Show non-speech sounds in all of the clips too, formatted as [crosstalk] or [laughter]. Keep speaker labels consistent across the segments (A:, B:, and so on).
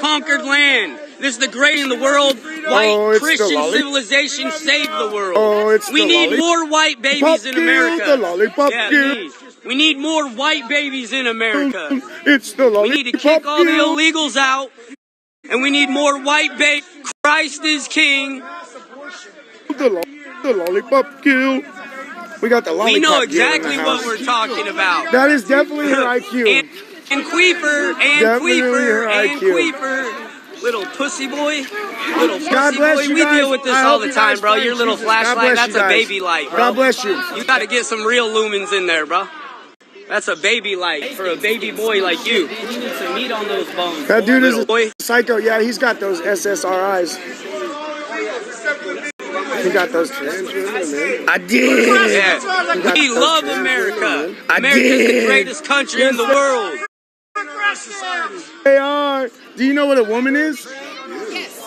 A: conquered land. This is the great in the world. White
B: Oh, it's the
A: Christian
B: lolli-
A: civilization saved the world.
B: Oh, it's
A: we
B: the
A: need
B: lolli-
A: more white
B: Pop
A: babies in
B: girl,
A: America.
B: the lollipop
A: yeah,
B: girl.
A: please. We need more white babies in America.
B: It's the
A: We
B: lollipop
A: need
B: [laughs]
A: to kick all the
B: girl.
A: illegals out. And we need more white babies. Christ is king.
B: The, lo- the lollipop kill. We got the lollipop.
A: We know
B: girl in the
A: exactly
B: house.
A: what we're talking about.
B: That is definitely her
A: [laughs] And,
B: IQ.
A: and Queeper, and
B: Definitely
A: Queeper,
B: your
A: and
B: IQ.
A: Queeper. Little pussy boy, little
B: God
A: pussy
B: bless
A: boy.
B: you
A: We
B: guys.
A: deal with this
B: I
A: all
B: hope
A: the
B: you
A: time,
B: guys
A: bro.
B: find
A: Your little
B: Jesus. God
A: flashlight,
B: bless you
A: that's a
B: guys.
A: baby light, bro.
B: God bless you.
A: You got to get some real lumens in there, bro. That's a baby light for a baby boy like you. You need some meat on those bones.
B: That dude is
A: little
B: a
A: boy.
B: psycho. Yeah, he's got those SSRIs. He got those. I did.
A: Yeah. We
B: those
A: love
B: kids.
A: America.
B: I
A: America's the
B: did.
A: greatest country in the world.
B: They are. Do you know what a woman is?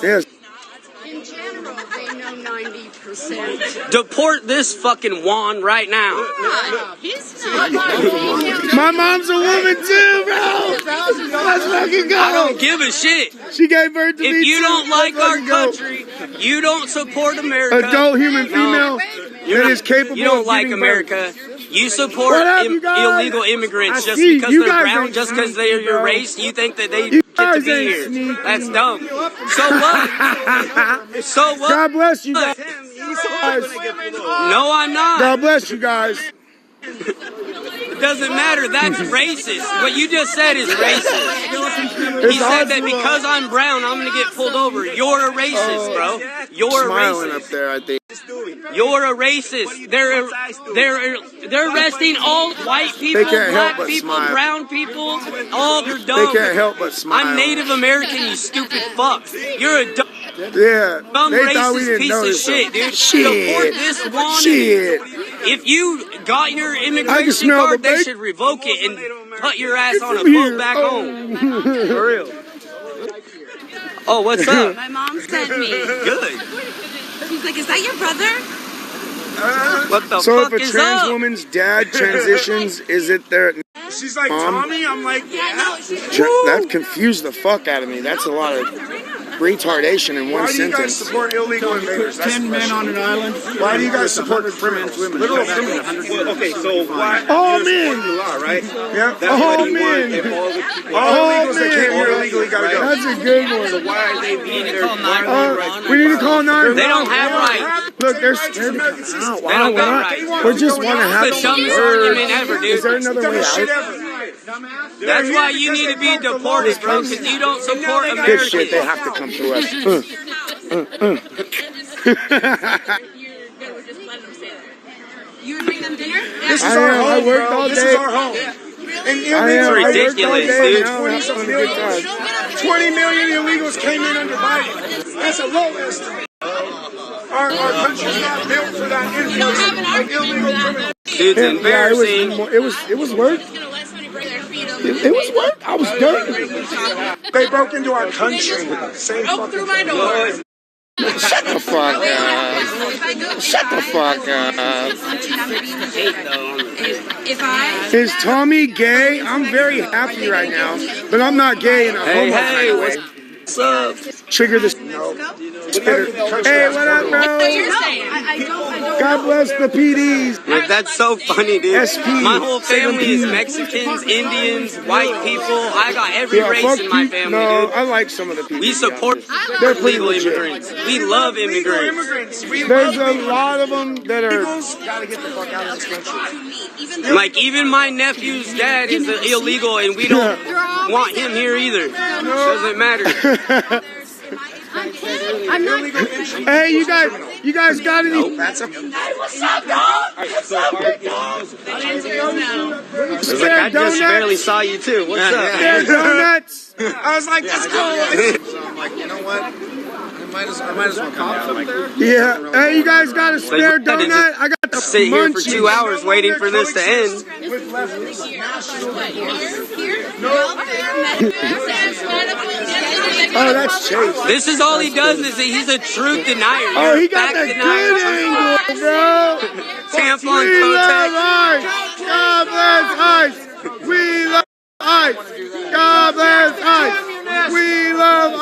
B: Yes.
C: In general, they know ninety percent.
A: Deport this fucking Juan right now.
C: He's not lying.
B: My mom's a woman too, bro. Let's fucking
A: I
B: go.
A: don't give a shit.
B: She gave birth to me
A: If you
B: too.
A: don't like
B: Let's
A: our
B: fucking go.
A: country, you don't support America.
B: adult human female
A: You're
B: that
A: not-
B: is capable.
A: You don't
B: of
A: like
B: giving birth.
A: America. You support
B: What up,
A: im-
B: you guys?
A: illegal immigrants
B: I
A: just
B: see,
A: because
B: you
A: they're
B: guys
A: brown,
B: ain't
A: just because they are
B: sneaky,
A: your
B: bro.
A: race. You think that they
B: You
A: get to
B: guys
A: be
B: ain't
A: here?
B: sneaky.
A: That's dumb. So
B: [laughs]
A: what? so what?
B: God bless you guys.
A: No, I'm not.
B: God bless you guys.
A: It doesn't matter. That's racist. What you just said is racist. He said that because I'm brown, I'm gonna get pulled over. You're a racist, bro. You're a
B: Oh, smiling
A: racist.
B: up there. I think.
A: You're a racist. They're they're they're arresting all white people,
B: They can't help
A: black
B: but
A: people,
B: smile.
A: brown people. All they're
B: They
A: dumb.
B: can't help but smile.
A: I'm Native American, you stupid fuck. You're a dumb,
B: Yeah.
A: dumb
B: they thought we
A: racist
B: didn't
A: piece of
B: notice.
A: shit, dude. Deport
B: Shit.
A: this one.
B: Shit.
A: If you got your immigration
B: smell
A: card,
B: the
A: they
B: bake-
A: should revoke it and put your ass
B: Get
A: on a
B: from
A: boat
B: here.
A: back
B: Oh.
A: home. For real. Oh, what's
B: [laughs]
A: up?
C: My mom sent me.
A: Good.
C: She's like, "Is that your brother?"
A: What the
B: So if
A: fuck
B: a
A: is
B: trans
A: up?
B: woman's dad transitions, is it their
D: She's like,
B: Mom?
D: Tommy? I'm like,
C: Yeah, no, she's.
B: tra- that confused the fuck out of me? That's a lot of retardation in one
D: why do you guys
B: sentence.
D: support illegal invaders? That's the question.
E: an island.
D: Why do you guys support criminals? Literal criminals.
F: Okay, so why?
B: All men.
F: you're supporting the law, right?
B: Yeah.
F: That's what
B: All
F: you want. If
B: men.
F: all the people-
D: All
B: Oh,
D: illegals that came
B: man.
D: here illegally gotta go.
B: That's a good one.
F: why are they being there? Why are they
B: Uh, we need to call nine.
A: They don't have rights.
B: Look, there's.
A: They don't got rights.
B: We just want to have
A: That's the
B: some
A: dumbest
B: words.
A: argument ever,
B: Is there
A: dude.
B: another way
D: Shit
B: out?
D: ever.
A: That's why you need to be deported, bro, because you don't support
B: Good shit. They
A: America.
B: have to come through
D: [laughs]
B: us. Uh,
C: You would bring them dinner?
D: This
B: I
D: is our
B: am. I
D: home,
B: worked all
D: bro. This
B: day.
D: is our home. And
B: I
D: illegals
B: am. I
D: are
B: worked all
A: Ridiculous,
B: day,
A: dude.
B: and now we're having a good
C: Oh,
B: time.
D: 20 million illegals came in under Biden. That's a low estimate. Our, our country's not built for that influx of illegal criminals.
A: Dude's
B: Yeah, yeah, it was.
A: embarrassing.
B: It was. It was work. It, it was work. I was dirty.
D: They broke into our country. Same
C: Broke
D: fucking
C: through my door.
B: Shut the fuck up. Shut the fuck up.
C: If I.
B: Is Tommy gay? I'm very happy right now, but I'm not gay in a
A: Hey,
B: homo kind
A: hey,
B: of way.
A: what's up?
B: Trigger this. Hey, what up, bro?
C: You're saying. I, I don't. I don't.
B: God bless the PDs.
A: Like, that's so funny, dude.
B: SP,
A: My whole family is
B: seventeen.
A: Mexicans, Indians, white people. I got every
B: Yeah,
A: race
B: fuck
A: in my
B: you.
A: family,
B: No,
A: dude.
B: I like some of the PDs.
A: We support
B: They're pretty
A: legal
B: legit.
A: immigrants. We love
D: Illegal
A: immigrants.
D: immigrants. We
B: There's
D: love
B: a lot of them that are.
D: illegals. Gotta get the fuck out of this country.
A: Like, even my nephew's dad is illegal, and we don't want him here either. Doesn't
B: [laughs]
A: matter.
C: I'm not.
D: Illegal entry.
B: Hey, you guys, you guys got any?
D: That's a
A: It's like, I just
B: donuts? [laughs]
A: barely saw you, too. What's up? [laughs]
B: There's donuts.
D: I was like,
B: [laughs]
D: let's go.
B: Yeah. Hey, you guys got a spare
A: They wanted to
B: donut? I got the
A: Sit here for
B: munchies.
A: two hours waiting for this to end.
B: Oh, that's Chase.
A: This is all he does is that he's a truth denier. You're
B: Oh,
A: a
B: he got
A: fact
B: the
A: denier.
B: good angle, bro.
A: Tampon
B: We love
A: Kotex.
B: ice. God bless ice. We love ice. God bless ice.
D: best.
B: We love